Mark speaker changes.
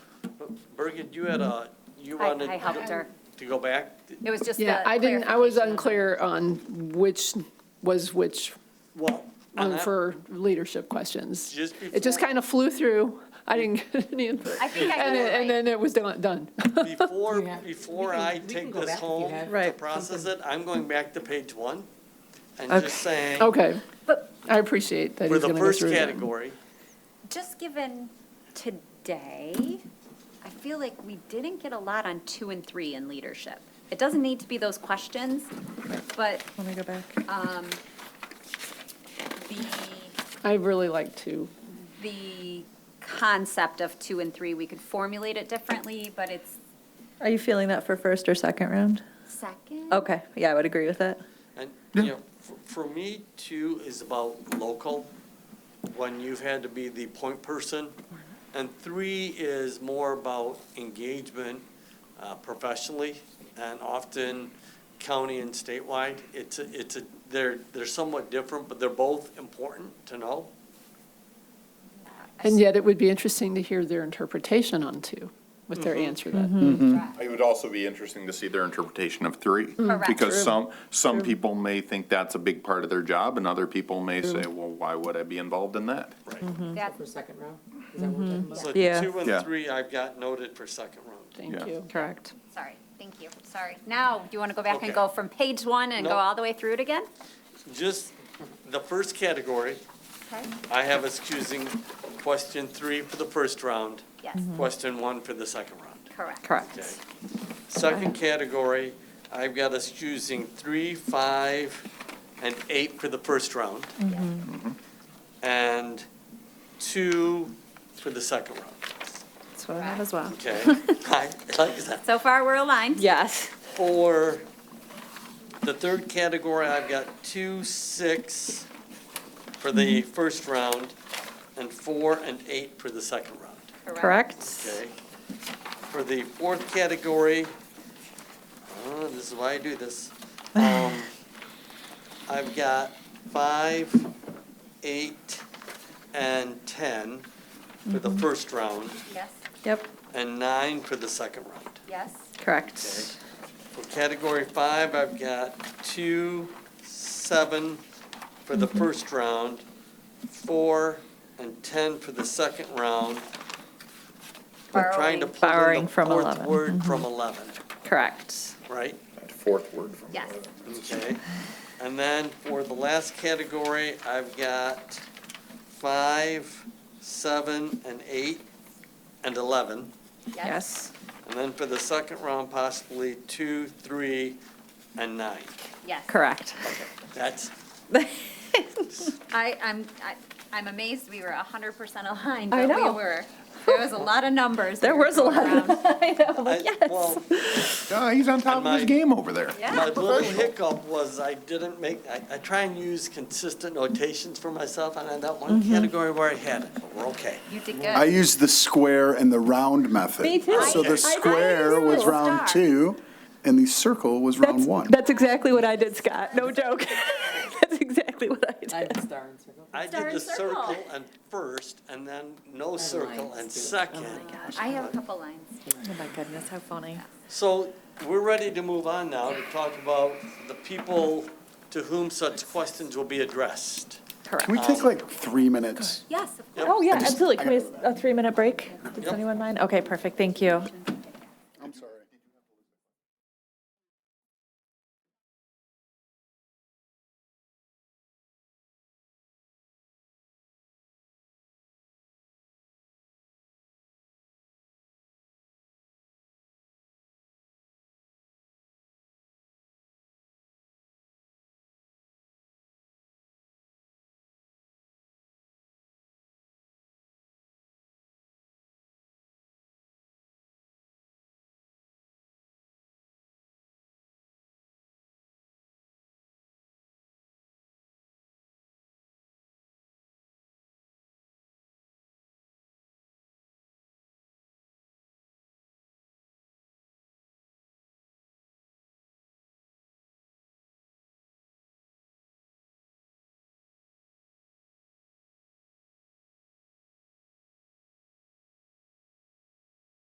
Speaker 1: Birgit, you had a, you
Speaker 2: I-
Speaker 1: wanted.
Speaker 2: I helped her.
Speaker 1: To go back?
Speaker 2: It was just the
Speaker 3: Yeah, I didn't, I was
Speaker 2: clarification.
Speaker 3: unclear on which was which
Speaker 1: Well. on
Speaker 3: um,
Speaker 1: that-
Speaker 3: for leadership questions.
Speaker 1: Just
Speaker 3: It just
Speaker 1: before-
Speaker 3: kind of flew through. I didn't get any input.
Speaker 2: I think I got
Speaker 3: And
Speaker 2: it
Speaker 3: it-
Speaker 2: right.
Speaker 3: and then it was done- done.
Speaker 1: Before,
Speaker 4: Yeah.
Speaker 1: before
Speaker 4: We can-
Speaker 1: I
Speaker 4: we can
Speaker 1: take
Speaker 4: go
Speaker 1: this
Speaker 4: back if you
Speaker 1: home
Speaker 4: have
Speaker 1: to
Speaker 5: Right.
Speaker 1: process it, I'm going back to page one and
Speaker 5: Okay.
Speaker 1: just saying,
Speaker 3: Okay,
Speaker 2: But
Speaker 3: I appreciate that
Speaker 1: for
Speaker 3: he's
Speaker 1: the
Speaker 3: going to go
Speaker 1: first
Speaker 3: through them.
Speaker 1: category,
Speaker 2: just given today, I feel like we didn't get a lot on two and three in leadership. It doesn't need to be those questions, but
Speaker 5: Let me go back.
Speaker 2: um, the,
Speaker 3: I really like to,
Speaker 2: the concept of two and three, we could formulate it differently, but it's
Speaker 5: Are you feeling that for first or second round?
Speaker 2: second.
Speaker 1: Oh.
Speaker 5: Okay, yeah, I would agree with that.
Speaker 1: and, you know, for, for me, two is about local, when you've had to be the point person. And three is more about engagement uh, professionally and often county and statewide. It's, a- it's, a they're, they're somewhat different, but they're both important to know.
Speaker 3: and yet it would be interesting to hear their interpretation on two, with
Speaker 1: Mm-hmm.
Speaker 3: their answer to that.
Speaker 2: Correct.
Speaker 6: It would also be interesting to see their interpretation of three.
Speaker 2: Mm-hmm. Correct.
Speaker 6: Because
Speaker 2: True.
Speaker 6: some, some people may think that's a big part of their job, and other people may say, well, why would I be involved in that?
Speaker 1: Right.
Speaker 2: That-
Speaker 4: For second round? Is that what we're talking about?
Speaker 1: So
Speaker 5: Yeah.
Speaker 1: two
Speaker 6: Yeah.
Speaker 1: and three, I've got noted for second round.
Speaker 3: Thank
Speaker 6: Yeah.
Speaker 3: you.
Speaker 5: Correct.
Speaker 2: Sorry, thank you, sorry. Now, you want to go back
Speaker 1: Okay.
Speaker 2: and go from page one and go
Speaker 1: No.
Speaker 2: all the way through it again?
Speaker 1: Just the first category,
Speaker 2: Okay.
Speaker 1: I have us choosing question three for the first round,
Speaker 2: Yes,
Speaker 1: question one for the second round.
Speaker 2: correct.
Speaker 1: Okay.
Speaker 5: Correct.
Speaker 1: Second category, I've got us choosing three, five, and eight for the first round. And two for the second round,
Speaker 5: That's what I have as well.
Speaker 1: okay? I like that.
Speaker 2: So far, we're aligned.
Speaker 5: Yes.
Speaker 1: For the third category, I've got two, six for the first round, and four and eight for the second round,
Speaker 5: Correct.
Speaker 1: okay? For the fourth category, oh, this is why I do this. Um, I've got five, eight, and 10 for the first round,
Speaker 2: Yes,
Speaker 5: Yep,
Speaker 1: and nine for the second round.
Speaker 2: yes,
Speaker 5: correct.
Speaker 1: For category five, I've got two, seven for
Speaker 5: Mm-hmm.
Speaker 1: the first round, four and 10 for the second round. We're trying to pull in the
Speaker 2: Borrowing.
Speaker 5: Borrowing from Mm-hmm.
Speaker 1: fourth
Speaker 5: 11,
Speaker 1: Word from 11,
Speaker 5: Correct.
Speaker 1: right?
Speaker 6: Fourth word from.
Speaker 2: yes.
Speaker 1: Okay. And then for the last category, I've got five, seven, and eight, and 11.
Speaker 5: Yes.
Speaker 1: And then for the second round, possibly two, three, and nine.
Speaker 2: Yes.
Speaker 5: Correct.
Speaker 1: That's,
Speaker 2: I, I'm, I- I'm amazed we were 100% aligned,
Speaker 5: I
Speaker 2: but we
Speaker 5: know.
Speaker 2: were. There was a lot of numbers.
Speaker 5: There
Speaker 2: we were
Speaker 5: was a
Speaker 2: throwing around.
Speaker 5: lot of, I know,
Speaker 1: I-
Speaker 5: like, yes.
Speaker 1: well,
Speaker 6: Ah, he's on top
Speaker 1: And
Speaker 6: of his
Speaker 1: my-
Speaker 6: game over there.
Speaker 1: My
Speaker 2: Yeah,
Speaker 1: little hiccup was I didn't make, I, I try and use consistent notations for myself, and I had that one
Speaker 2: Mm-hmm.
Speaker 1: category where I had it, but we're okay.
Speaker 2: you did
Speaker 7: I
Speaker 2: good.
Speaker 7: use the square and the round method.
Speaker 5: Me too.
Speaker 7: So
Speaker 5: I- I
Speaker 7: the square
Speaker 5: did
Speaker 7: was
Speaker 5: too.
Speaker 7: round
Speaker 2: Star.
Speaker 7: two, and the circle was round
Speaker 5: That's,
Speaker 7: one.
Speaker 5: that's exactly what I did, Scott. No joke. That's exactly what I oh
Speaker 4: I
Speaker 5: did.
Speaker 4: have star and circle.
Speaker 1: I
Speaker 2: Star
Speaker 1: did
Speaker 2: and
Speaker 1: the
Speaker 2: circle.
Speaker 1: circle and first, and then no circle and
Speaker 4: lines, too.
Speaker 1: second.
Speaker 2: I have a couple lines.
Speaker 5: Oh my goodness, how funny.
Speaker 1: So we're ready to move on now to talk about the people to whom such questions will be addressed.
Speaker 7: Can we
Speaker 5: Correct.
Speaker 7: take like three minutes?
Speaker 2: Yes, of course.
Speaker 5: Oh, yeah,
Speaker 7: I just-
Speaker 5: absolutely. Can
Speaker 7: I
Speaker 5: we,
Speaker 7: gotta
Speaker 5: a three-minute break? Does
Speaker 1: Yep.
Speaker 5: anyone mind? Okay, perfect. Thank you.